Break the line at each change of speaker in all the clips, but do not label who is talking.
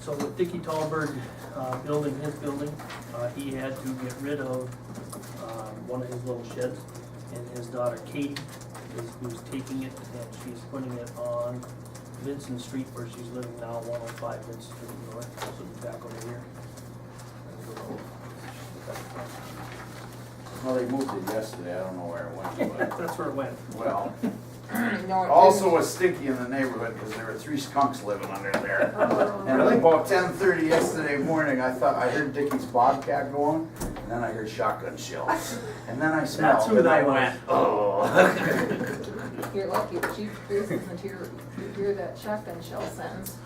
So with Dicky Talberg, uh, building his building, uh, he had to get rid of, um, one of his little sheds. And his daughter Katie is who's taking it and she's putting it on Vincent Street where she's living now, one oh five Vincent Street North, so it's back over here.
Well, they moved it yesterday, I don't know where it went, but,
That's where it went.
well.
No, it
Also was stinky in the neighborhood because there were three skunks living under there. And at about ten thirty yesterday morning, I thought, I heard Dicky's bobcat going, and then I heard shotgun shells. And then I
That's
smelled,
who
and I
they
went,
went.
oh.
didn't. You're lucky the chief isn't here to hear that shotgun shell sentence.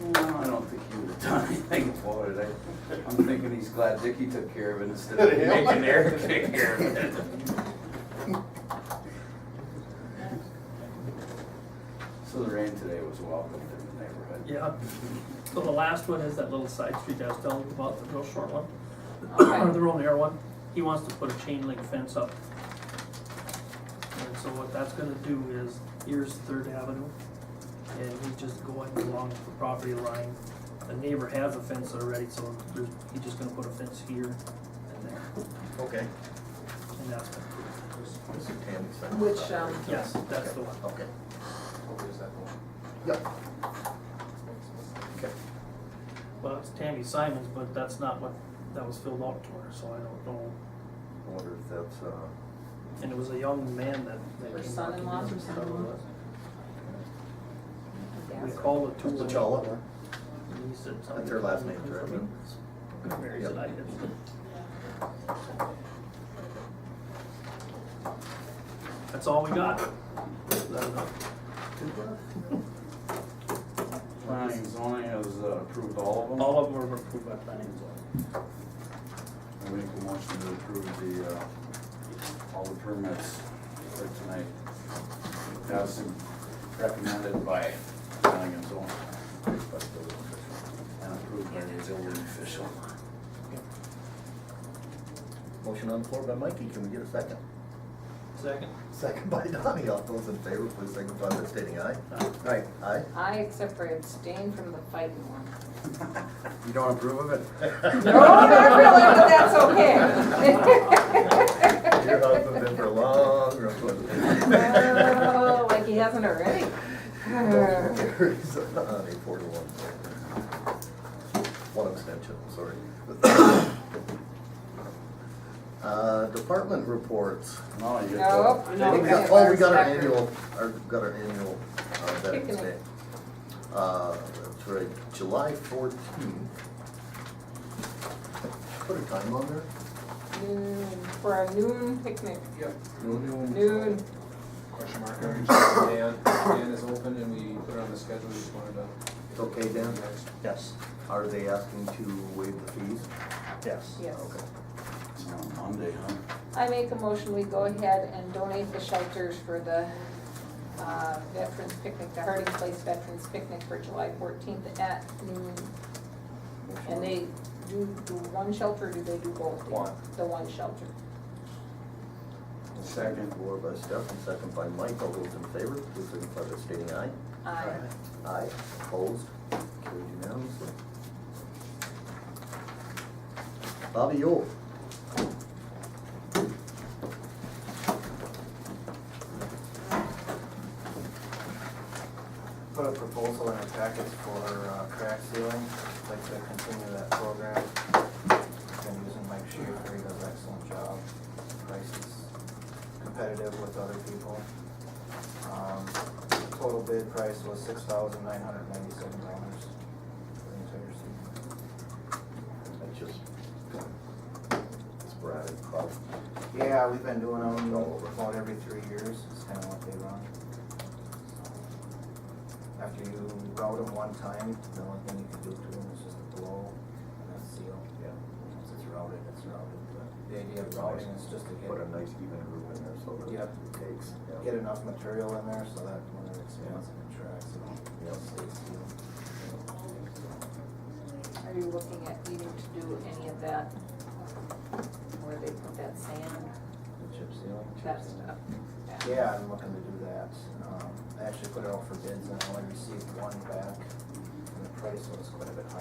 No, I don't think he would have done anything about it. I- I'm thinking he's glad Dicky took care of it instead of making Eric take care of it. So the rain today was welcomed in the neighborhood.
Yeah. So the last one is that little side street I was telling you about, the real short one.
Okay.
the real narrow one, he wants to put a chain link fence up. And so what that's gonna do is, here's Third Avenue, and he's just going along the property line. The neighbor has a fence already, so there's, he's just gonna put a fence here and there,
Okay.
and that's, gonna-
This is Tammy's side.
Which, um,
yes, that's the one.
Okay. Yep.
Well, it's Tammy Simons, but that's not what, that was filled out to her, so I don't know.
I wonder if that's, uh.
And it was a young man that. that
Her
came up
son-in-law
to
or
me.
something?
We
yes.
called it two.
That's the Cholla.
And he said something.
That's her last name, correct?
Mary said I did. That's all we got. Is that enough?
Planning and zoning has uh, approved all of them.
All of them were approved by planning and zoning.
I make a motion to approve the, uh, all the permits for tonight. As recommended by planning and zoning. And approved by the building official.
Motion on the floor by Mikey, can we get a second?
Second?
Second by Donnie, all those in favor, please signify by stating aye.
Aye.
Aye. Aye?
I except for abstain from the fighting one.
You don't approve of it?
No, not really, but that's okay.
Your husband been for a long, road.
Oh, like he hasn't already.
Carries on a four to one. One abstention, sorry. Uh, department reports.
No, you get
No,
the.
no.
Oh, we got, oh, we got our annual, our, got our annual, uh,
Kicking
veterans
it.
day. Uh, that's right, July fourteenth. Put a time on there?
Noon, for a noon picnic,
Noon.
noon.
Question mark, I reached out to Dan, Dan is open and we put it on the schedule, we just wanted to.
It's okay, Dan?
Next.
Yes. Are they asking to waive the fees? Yes.
Yes.
Okay.
It's on Monday, huh?
I make a motion, we go ahead and donate the shelters for the uh, Veterans Picnic, the Harding Place Veterans Picnic for July fourteenth at noon. And they do, do one shelter, or do they do both?
One.
The one shelter.
Second. Floor by Steph and second by Mike, all those in favor, please signify by stating aye.
Aye.
Aye, opposed, carried unanimously. Bobby Yule.
put a proposal in our packets for uh, crack sealing, I'd like to continue that program. Been using Mike Schaefer, he does an excellent job, price is competitive with other people. Um, Total bid price was six thousand nine hundred ninety-seven dollars for the entire season.
That's just sporadic, probably.
Yeah, we've been doing them
All over.
about every three years, it's kind of what they run. After you route them one time, the only thing you can do to them is just blow and then seal. Yeah. Once it's routed, it's routed, but the idea of routing is just to
Put a
get,
nice even room in there so that
Yep.
it takes. yeah.
get enough material in there so that when it expands and contracts,
Yeah.
it'll stay sealed.
Are you looking at needing to do any of that? Where they put that sand,
The chip sealing?
that stuff?
Yeah, I'm looking to do that. Um, I actually put it out for bids and I only received one back. And the price was quite a bit higher